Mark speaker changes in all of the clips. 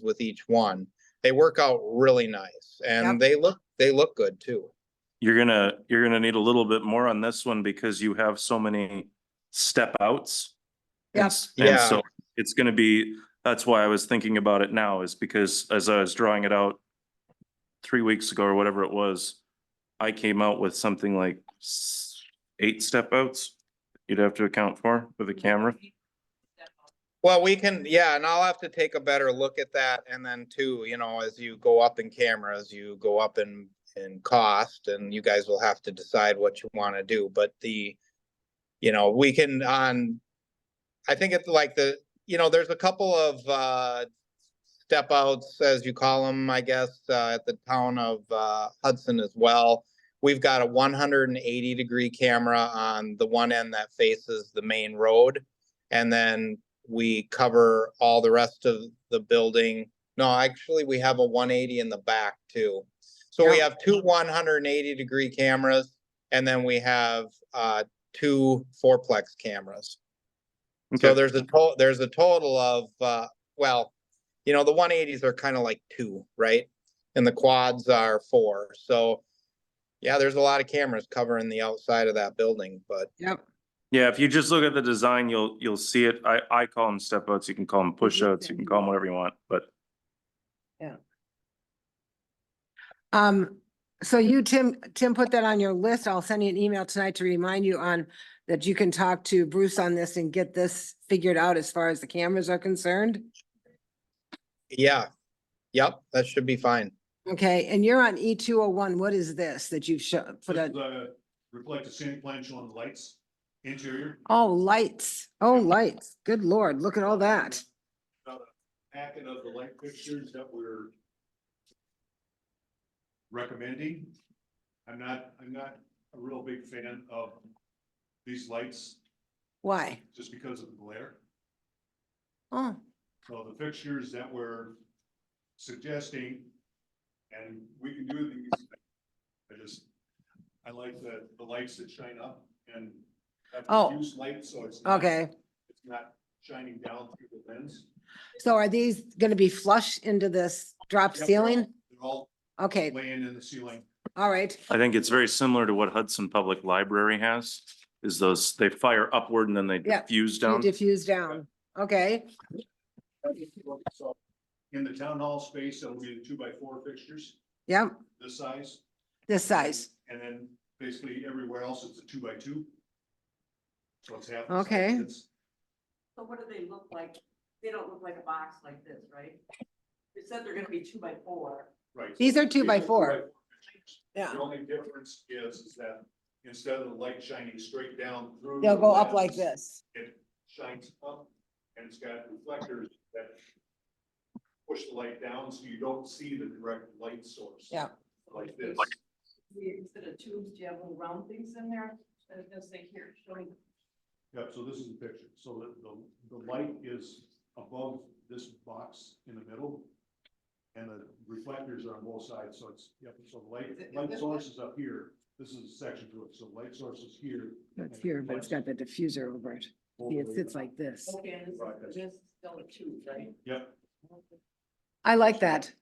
Speaker 1: with each one. They work out really nice
Speaker 2: Yep.
Speaker 1: and they look, they look good too.
Speaker 3: You're gonna, you're gonna need a little bit more on this one because you have so many step outs.
Speaker 2: Yep.
Speaker 3: Yes. And
Speaker 1: Yeah.
Speaker 3: so it's gonna be, that's why I was thinking about it now is because as I was drawing it out three weeks ago or whatever it was, I came out with something like s- eight step outs you'd have to account for with a camera.
Speaker 1: Well, we can, yeah, and I'll have to take a better look at that. And then too, you know, as you go up in cameras, you go up in, in cost and you guys will have to decide what you want to do, but the, you know, we can on, I think it's like the, you know, there's a couple of, uh, step outs, as you call them, I guess, uh, at the town of, uh, Hudson as well. We've got a one hundred and eighty degree camera on the one end that faces the main road. And then we cover all the rest of the building. No, actually, we have a one eighty in the back too. So we
Speaker 2: Yeah.
Speaker 1: have two one hundred and eighty degree cameras and then we have uh two fourplex cameras. So
Speaker 3: Okay,
Speaker 1: there's a total, there's a total of uh, well, you know, the one eighties are kind of like two, right? And the quads are four. So yeah, there's a lot of cameras covering the outside of that building, but
Speaker 2: Yep.
Speaker 3: yeah, if you just look at the design, you'll, you'll see it. I, I call them step outs. You can call them push outs. You can call them whatever you want, but
Speaker 2: Um, so you, Tim, Tim, put that on your list. I'll send you an email tonight to remind you on that you can talk to Bruce on this and get this figured out as far as the cameras are concerned.
Speaker 1: yeah. Yep, that should be fine.
Speaker 2: Okay, and you're on E two oh one. What is this that you've shown, put
Speaker 4: Just,
Speaker 2: a,
Speaker 4: uh, Reflect the same plan showing the lights, interior.
Speaker 2: oh, lights, oh, lights. Good lord, look at all that.
Speaker 4: Packet of the light fixtures that we're recommending. I'm not, I'm not a real big fan of these lights
Speaker 2: Why?
Speaker 4: just because of the glare.
Speaker 2: Oh,
Speaker 4: So the fixtures that we're suggesting, and we can do these. I just, I like the, the lights that shine up and have
Speaker 2: Oh.
Speaker 4: diffuse light, so it's. not-
Speaker 2: okay.
Speaker 4: It's not shining down through the lens.
Speaker 2: So are these gonna be flush into this drop
Speaker 4: Yep.
Speaker 2: ceiling?
Speaker 4: They're all
Speaker 2: Okay,
Speaker 4: laying in the ceiling.
Speaker 2: all right.
Speaker 3: I think it's very similar to what Hudson Public Library has, is those, they fire upward and then they
Speaker 2: Yeah,
Speaker 3: diffuse
Speaker 2: You
Speaker 3: down.
Speaker 2: Diffuse down, okay.
Speaker 4: So In the town hall space, it'll be the two by four fixtures,
Speaker 2: Yep,
Speaker 4: this size.
Speaker 2: this size.
Speaker 4: And then basically everywhere else, it's a two by two. So it's half. the size.
Speaker 2: Okay.
Speaker 4: It's-
Speaker 5: So what do they look like? They don't look like a box like this, right? They said they're gonna be two by four.
Speaker 4: Right.
Speaker 2: These are two by
Speaker 4: These are
Speaker 2: four.
Speaker 4: two by four fixtures.
Speaker 2: Yeah.
Speaker 4: The only difference is, is that instead of the light shining straight down through.
Speaker 2: They'll
Speaker 4: the
Speaker 2: go up like
Speaker 4: lens,
Speaker 2: this.
Speaker 4: It shines up and it's got reflectors that push the light down so you don't see the direct light source.
Speaker 2: Yeah.
Speaker 4: Like this.
Speaker 5: We, instead of tubes, do you have little round things in there? And they'll say, here, show me.
Speaker 4: Yep, so this is the picture. So the, the, the light is above this box in the middle. And the reflectors are on both sides, so it's, yep, so the
Speaker 5: Is
Speaker 4: light,
Speaker 5: it- is
Speaker 4: light
Speaker 5: this
Speaker 4: source is up here. This is a section to it, so light source is here.
Speaker 2: It's here, but it's got the diffuser over it. See, It sits like this.
Speaker 5: Okay, and this is, this is still a tube, right?
Speaker 4: Yep,
Speaker 2: I like that.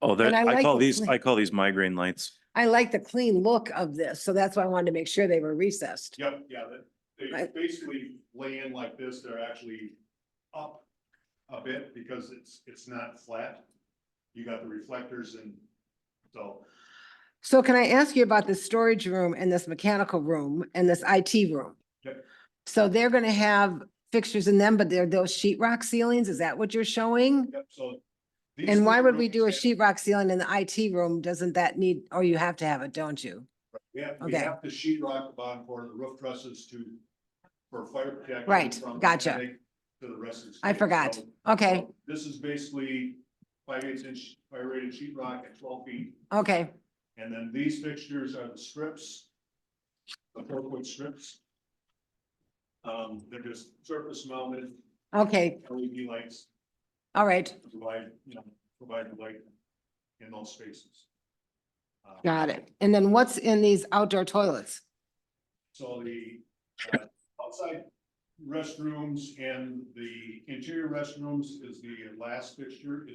Speaker 3: Oh, that,
Speaker 2: And I
Speaker 3: I
Speaker 2: like
Speaker 3: call
Speaker 2: the
Speaker 3: these,
Speaker 2: clean-
Speaker 3: I call these migraine lights.
Speaker 2: I like the clean look of this, so that's why I wanted to make sure they were recessed.
Speaker 4: yep, yeah, that, they
Speaker 2: Right.
Speaker 4: basically lay in like this. They're actually up a bit because it's, it's not flat. You got the reflectors and so,
Speaker 2: So can I ask you about this storage room and this mechanical room and this IT room?
Speaker 4: Yep.
Speaker 2: So they're gonna have fixtures in them, but they're those sheetrock ceilings? Is that what you're showing?
Speaker 4: yep, so. these
Speaker 2: And why
Speaker 4: three
Speaker 2: would we do a
Speaker 4: rooms have-
Speaker 2: sheetrock ceiling in the IT room? Doesn't that need, or you have to have it, don't you?
Speaker 4: Yeah, we
Speaker 2: Okay.
Speaker 4: have to sheet rock the bottom part of the roof trusses to, for fire protection.
Speaker 2: Right,
Speaker 4: from
Speaker 2: gotcha.
Speaker 4: attic To the rest of the.
Speaker 2: I
Speaker 4: space.
Speaker 2: forgot.
Speaker 4: So
Speaker 2: Okay,
Speaker 4: This is basically five eighths inch fire rated sheet rock at twelve feet,
Speaker 2: okay,
Speaker 4: and then these fixtures are the strips. The four foot strips. Um, they're just surface mounted
Speaker 2: okay,
Speaker 4: LED lights
Speaker 2: all right,
Speaker 4: to provide, you know, provide the light in those spaces. Um,
Speaker 2: got it. And then what's in these outdoor toilets?
Speaker 4: So the uh, outside restrooms and the interior restrooms is the last fixture.